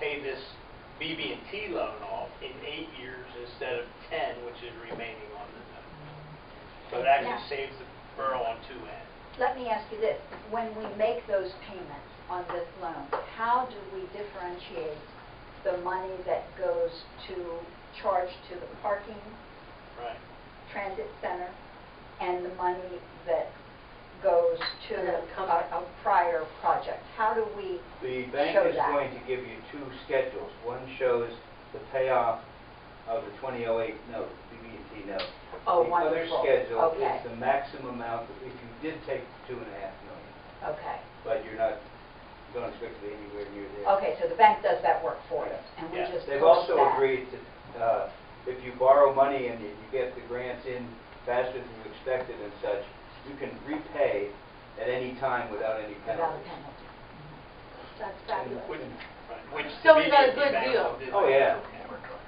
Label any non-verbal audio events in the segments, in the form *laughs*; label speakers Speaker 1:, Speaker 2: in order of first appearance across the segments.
Speaker 1: pay this BB&T loan off in eight years instead of 10, which is remaining on the note. So it actually
Speaker 2: Yeah.
Speaker 1: saves the borough on two ends.
Speaker 2: Let me ask you this, when we make those payments on this loan, how do we differentiate the money that goes to, charge to the parking
Speaker 1: Right.
Speaker 2: transit center and the money that goes to
Speaker 3: Yeah,
Speaker 2: a
Speaker 3: come-
Speaker 2: a prior project? How do we,
Speaker 4: The bank
Speaker 2: Show
Speaker 4: is
Speaker 2: that.
Speaker 4: going to give you two schedules. One shows the payoff of the 2008 note, BB&T note.
Speaker 2: Oh,
Speaker 4: The
Speaker 2: wonderful.
Speaker 4: other schedule
Speaker 2: Okay.
Speaker 4: is the maximum amount, that if you did take the two and a half million,
Speaker 2: okay,
Speaker 4: but you're not, don't expect to be anywhere near there.
Speaker 2: okay, so the bank does that work for us, and we
Speaker 1: Yeah.
Speaker 2: just
Speaker 4: They've
Speaker 2: push
Speaker 4: also
Speaker 2: that.
Speaker 4: agreed to, uh, if you borrow money and you you get the grants in faster than you expected and such, you can repay at any time without any
Speaker 2: Without a
Speaker 4: penalty.
Speaker 2: penalty. That's fabulous.
Speaker 1: Which, right, which
Speaker 3: So
Speaker 1: the
Speaker 3: we got a
Speaker 1: BB&T
Speaker 3: good
Speaker 1: bank
Speaker 3: deal.
Speaker 1: did.
Speaker 4: Oh, yeah.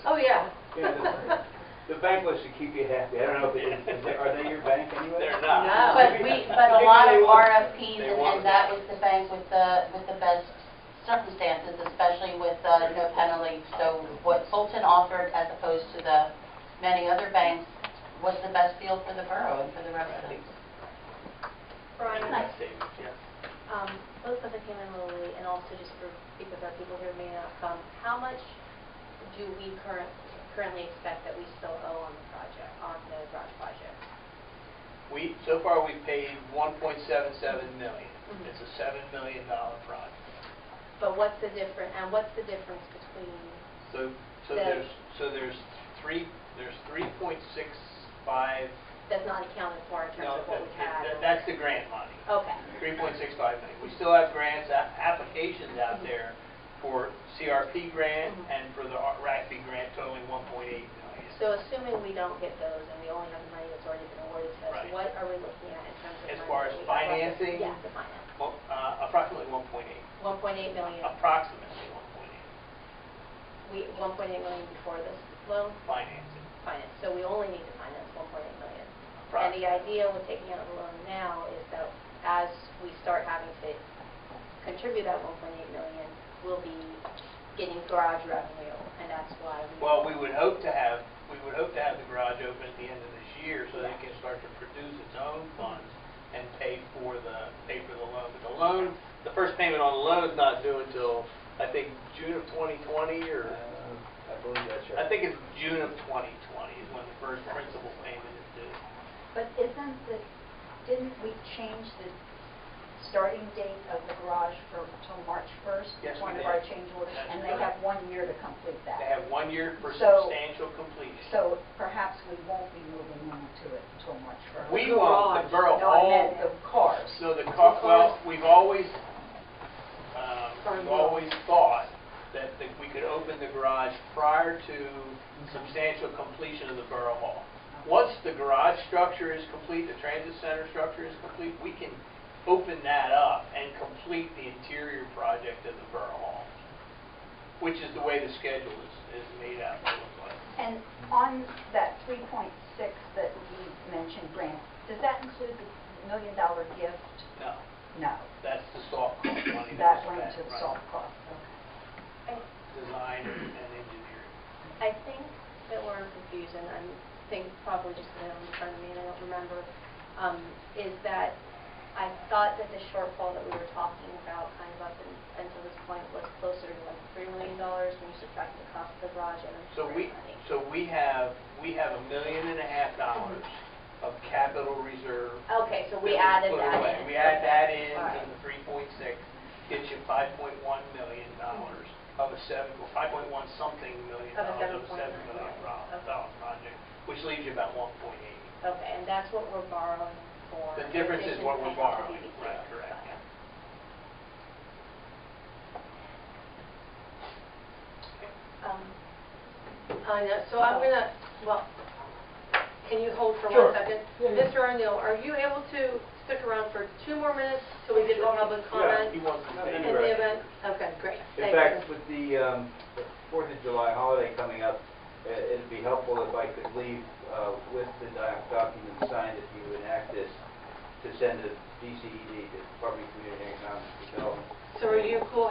Speaker 3: Oh, yeah.
Speaker 4: Yeah, The the bank wants to keep you happy. I don't know, if they- is they- are they your bank anyway?
Speaker 1: *laughs* They're not.
Speaker 3: No.
Speaker 5: But we, but a lot of RFPs,
Speaker 1: They
Speaker 5: and
Speaker 1: want
Speaker 5: and that was the bank with the, with the best circumstances, especially with uh, no penalty. So what Fulton offered as opposed to the many other banks was the best deal for the borough and for the residents.
Speaker 6: *laughs* Brian,
Speaker 1: And that savings, yes.
Speaker 6: um, both for the came in lowly and also just for, because our people here may not come, how much do we current, currently expect that we still owe on the project, on the garage project?
Speaker 1: We, so far, we paid 1.77 million.
Speaker 6: Mhm.
Speaker 3: Mm-hmm.
Speaker 1: It's a $7 million dollar project.
Speaker 6: But what's the difference, and what's the difference between,
Speaker 1: So, so
Speaker 6: The-
Speaker 1: there's, so there's three, there's 3.65
Speaker 6: that's not accounted for in terms
Speaker 1: No,
Speaker 6: of what we
Speaker 1: that-
Speaker 6: had?
Speaker 1: that- That's the grant money,
Speaker 6: Okay,
Speaker 1: 3.65 million. We still have grants, a- applications out
Speaker 6: Mm-hmm.
Speaker 1: there for CRP grant
Speaker 6: Mhm.
Speaker 1: and for the RACB grant totaling 1.8 million.
Speaker 6: so assuming we don't get those and we only have the money that's already been awarded to us,
Speaker 1: Right.
Speaker 6: what are we looking at in terms of money?
Speaker 1: As far as
Speaker 6: that we have left?
Speaker 1: financing?
Speaker 6: Yeah, the finance,
Speaker 1: Well, uh, Approximately 1.8,
Speaker 6: 1.8 million,
Speaker 1: Uh, approximately 1.8
Speaker 6: we, 1.8 million before this loan?
Speaker 1: financing.
Speaker 6: finance, so we only need to finance 1.8 million. And the
Speaker 1: approximately.
Speaker 6: idea with taking out a loan now is that as we start having to contribute that 1.8 million, we'll be getting garage revenue, and that's why we...
Speaker 1: Well, we would hope to have, we would hope to have the garage open at the end of this year so that it can start to produce its own funds and pay for the, pay for the loan. But the loan, the first payment on the loan's not due until, I think, June of 2020
Speaker 4: Uh,
Speaker 1: or,
Speaker 4: I believe that's right.
Speaker 1: I think it's June of 2020 is when the first principal payment is due.
Speaker 2: But isn't the, didn't we change the starting date of the garage for, till March 1st?
Speaker 1: Yes, we
Speaker 2: One of
Speaker 1: did.
Speaker 2: our change orders,
Speaker 1: That's
Speaker 2: and they
Speaker 1: correct.
Speaker 2: have one year to complete
Speaker 1: They
Speaker 2: that.
Speaker 1: have one year for
Speaker 2: So-
Speaker 1: substantial completion.
Speaker 2: So perhaps we won't be moving on to it until March 1st.
Speaker 1: We want the borough
Speaker 2: No, I
Speaker 1: all
Speaker 2: meant the cars.
Speaker 1: So the car, well, we've always, um,
Speaker 3: Sorry,
Speaker 1: we've
Speaker 3: no.
Speaker 1: always thought that that we could open the garage prior to substantial completion of the Borough Hall. Once the garage structure is complete, the transit center structure is complete, we can open that up and complete the interior project of the Borough Hall, which is the way the schedule is, is made out to look like.
Speaker 2: And on that 3.6 that we mentioned, Grant, does that include the million dollar gift?
Speaker 1: No,
Speaker 2: No,
Speaker 1: that's the soft cost money that
Speaker 2: that
Speaker 1: was
Speaker 2: went
Speaker 1: spent,
Speaker 2: to the
Speaker 1: right.
Speaker 2: soft cost.
Speaker 1: Design and engineering.
Speaker 6: I think that we're confused, and I think probably just because I'm in front of me and I don't remember, um, is that I thought that the shortfall that we were talking about kind of up un- until this point was closer to like $3 million when you subtract the cost of the garage and the
Speaker 1: So we,
Speaker 6: grant money.
Speaker 1: so we have, we have a million and a half dollars of capital reserve.
Speaker 6: Okay, Oh, so we
Speaker 1: that
Speaker 6: added
Speaker 1: put
Speaker 6: that
Speaker 1: away.
Speaker 6: in.
Speaker 1: We add that in,
Speaker 6: All
Speaker 1: to
Speaker 6: right.
Speaker 1: the three point six, gets you five point one million dollars of a seven, well, five point one something million
Speaker 6: Of a
Speaker 1: dollars of a
Speaker 6: 7.9
Speaker 1: seven million
Speaker 6: million.
Speaker 1: dollar project, which leaves you about one point eight.
Speaker 6: Okay, and that's what we're borrowing for.
Speaker 1: The
Speaker 6: in
Speaker 1: difference is
Speaker 6: addition
Speaker 1: what
Speaker 6: to
Speaker 1: we're
Speaker 6: paying off
Speaker 1: borrowing,
Speaker 6: the BBC.
Speaker 1: right, correct.
Speaker 6: Okay. Um,
Speaker 3: I know, so I'm gonna, well, can you hold for
Speaker 4: Sure.
Speaker 3: one second?
Speaker 4: Yeah, yeah.
Speaker 3: Mr. O'Neill, are you able to stick around for two more minutes till we get to public
Speaker 4: Yeah,
Speaker 3: comment?
Speaker 1: He wants to
Speaker 4: No,
Speaker 1: pay
Speaker 4: no,
Speaker 3: In
Speaker 4: no.
Speaker 1: you.
Speaker 3: the event, okay, great.
Speaker 4: In
Speaker 3: Thank
Speaker 4: fact,
Speaker 3: you.
Speaker 4: with the um, the Fourth of July holiday coming up, uh, it'd be helpful if I could leave uh, with the doc- document signed if you enact this E to send to DCED, the Department of Community and Economic Development.
Speaker 3: So are you cool